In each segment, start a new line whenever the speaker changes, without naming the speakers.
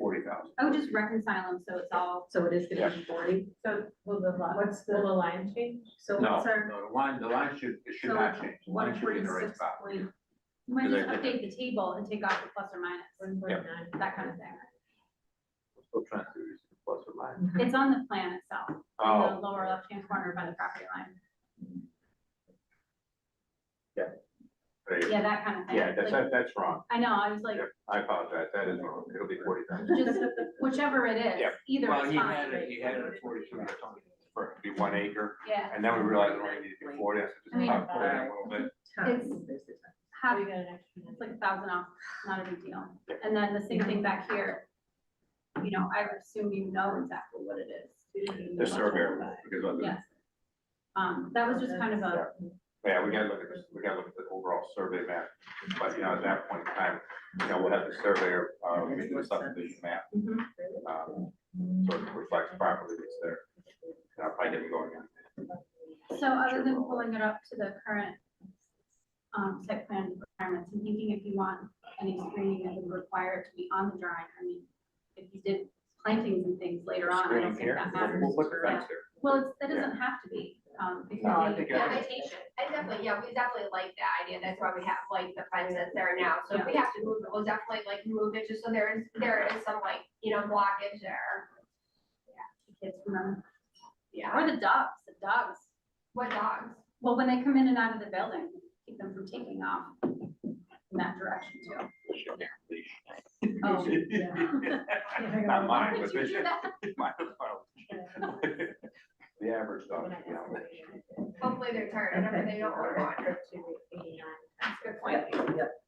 I would Oh, just reconcile them, so it's all,
So it is gonna be forty?
So will the, li- what's the, will the line change?
So
No,
what's our,
no, the line, the line should, it should
So
not change, the
one
line should be in the right
forty-six
spot.
point,
you might just
Because I
update the table and take off the plus or minus,
One point nine.
that kind of thing.
We're Still trying to use the plus or minus.
It's on the plan itself, in the
Oh,
lower left-hand corner by the property line,
there you go.
yeah, that kind of thing.
yeah, that's,
Like,
that- that's wrong.
I know, I was like,
Yep, I apologize, that is wrong, it'll be forty thousand.
just whichever it is,
Yep.
either
Well,
is
he had
fine,
it, he had it at forty-two, or something, for it to be one acre,
yeah.
and then we realized we only needed to be forty, so
I mean,
just pop it in a little bit.
time,
It's-
there's the time.
Half,
We got an extra.
it's like a thousand off, not a big deal. And then the same thing back here. You know, I would assume you know exactly what it is.
The surveyor, because of the,
Yes. Um, that was just kind of a,
yeah, we gotta look at this, we gotta look at the overall survey map, but, you know, at that point in time, you know, we'll have the surveyor, uh, we do the subdivision map,
mhm,
um, so it reflects properly what's there. And I'll probably get it going on.
so other than pulling it up to the current um, site plan requirements, I'm thinking if you want any screening that would require it to be on the drawing, I mean, if you did plantings and things later on, I
Screen
don't think
here,
that
we'll-
matters.
we'll put the fence there.
Well, it's, that
Yeah.
doesn't have to be, um, because
No, I
of the
think I-
vegetation.
I definitely, yeah, we definitely like that idea, that's why we have like the fence that's there now, so if we have to move it, we'll definitely like move it, just so there is, there is some like, you know, blockage there.
Kids remember,
Yeah,
or the dogs, the dogs,
what dogs?
well, when they come in and out of the building, keep them from taking off in that direction too. Oh,
Not mine,
Did
but
you
this,
do that?
mine, well, the average dog, you know.
Hopefully they're tired, and if they don't want one, that's a good point.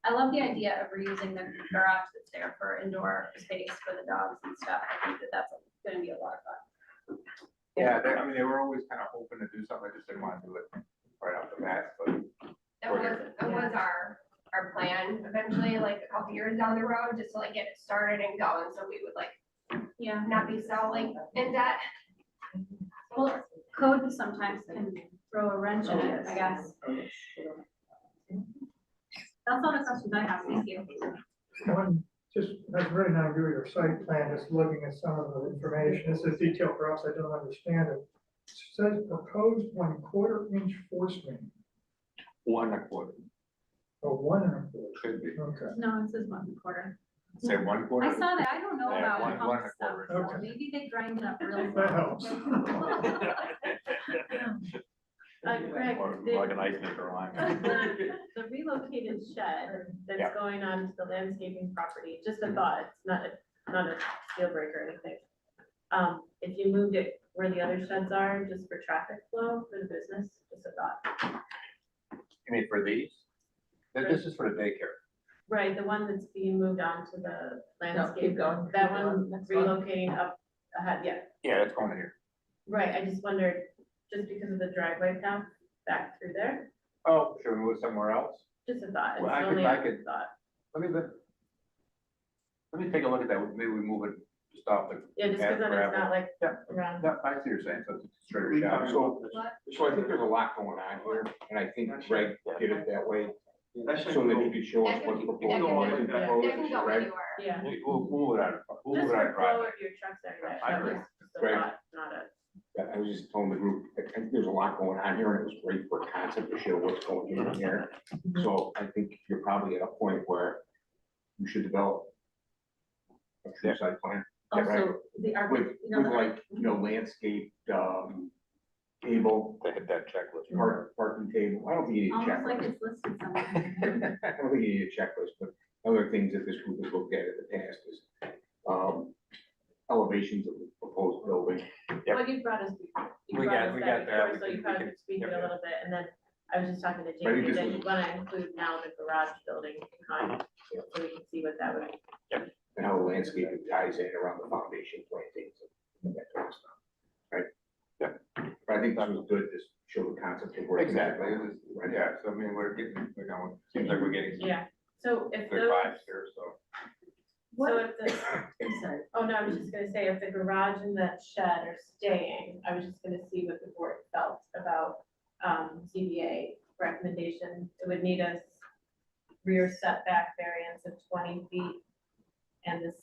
I love the idea of reusing the garage that's there for indoor space for the dogs and stuff. I think that that's gonna be a lot of fun.
Yeah, they, I mean, they were always kind of hoping to do something, I just didn't want to do it right off the bat, but
That was, that was our, our plan, eventually, like a couple years down the road, just to like get it started and going, so we would like
Yeah,
not be so like in debt.
well, code sometimes can throw a wrench in it, I guess. That's all the questions I have. Thank you.
One, just, that's very not agree with your site plan, just looking at some of the information, this is detail perhaps I don't understand it. Says proposed one quarter inch force main,
one and a quarter,
or one and a
it should be,
quarter, okay.
No, it says one quarter.
say one
I
quarter.
saw that. I don't know
Yeah,
about
one- one
pump
and a
stuff,
quarter.
so
Okay.
maybe they grind it up really
That
well.
helps.
Uh, Greg,
Or
the-
Like an ice maker line.
the the relocated shed
Yeah.
That's going on to the landscaping property, just a thought, it's not a, not a deal breaker or anything. Um, if you moved it where the other sheds are, just for traffic flow for the business, just a thought.
You mean for these? Th- This is for the daycare.
Right, the one that's being moved on to the
No, keep
landscape,
going.
that
keep going.
one
Next
relocating up, ahead, yeah,
Yeah, that's going in here.
right, I just wondered, just because of the driveway path back through there,
Oh, should we move somewhere else?
just a thought, it's
Well, I could-
only
I
a
could-
thought.
Let me, let let me take a look at that, maybe we move it just off the.
Yeah, just because
Yeah,
then it's
gravel.
not like
Yeah.
around.
No, I see what you're saying, so it's a straighter shot.
So,
What?
so I think there's a lot going on here, and I think Greg did it that way, so that he could show us what the proposal is. and
That can go
Greg,
anywhere.
Yeah,
We- We'll, we'll move it out, of- we'll move
just
it out.
for
of
flow
driveway.
of your trucks there, that,
I
that
agree.
was just a
Right.
thought, not a.
I was just telling the group, I think there's a lot going on here, and it was great for concept to show what's going on here. So I think you're probably at a point where you should develop a true site plan
Oh,
Yeah, right.
Also, the arch-
with,
you know,
with
the-
like, you know, landscape, um, table,
They hit that checklist.
Mm-hmm.
park, parking table, I don't think you need a
Almost like
checklist.
it's listed somewhere.
I don't think you need a checklist, but other things that this group has looked at in the past is, um, elevations of the proposed building.
Yep.
Well, you brought us before. You
We
brought
got-
us
we got that. We
before, So
can-
you
we
kind of
can-
speaking
yep,
a
yep.
little bit, and then I was just talking to
Maybe
Jamie,
this
that
is-
you wanna include now the garage building behind, so we can see what that would be.
and how the landscaping ties in around the foundation plantings and that kind of stuff, right? But I think that was good, just show the concept of where. it's at.
Exactly, it is-
Right.
yeah, so I mean, we're getting, we're going, seems like we're getting some
Yeah, so if
good
those,
vibes here, so.
so
What-
if the,
I'm sorry.
oh no, I was just gonna say, if the garage and that shed are staying, I was just gonna see what the board felt about, um, ZBA recommendation. It would need a rear setback variance of twenty feet and the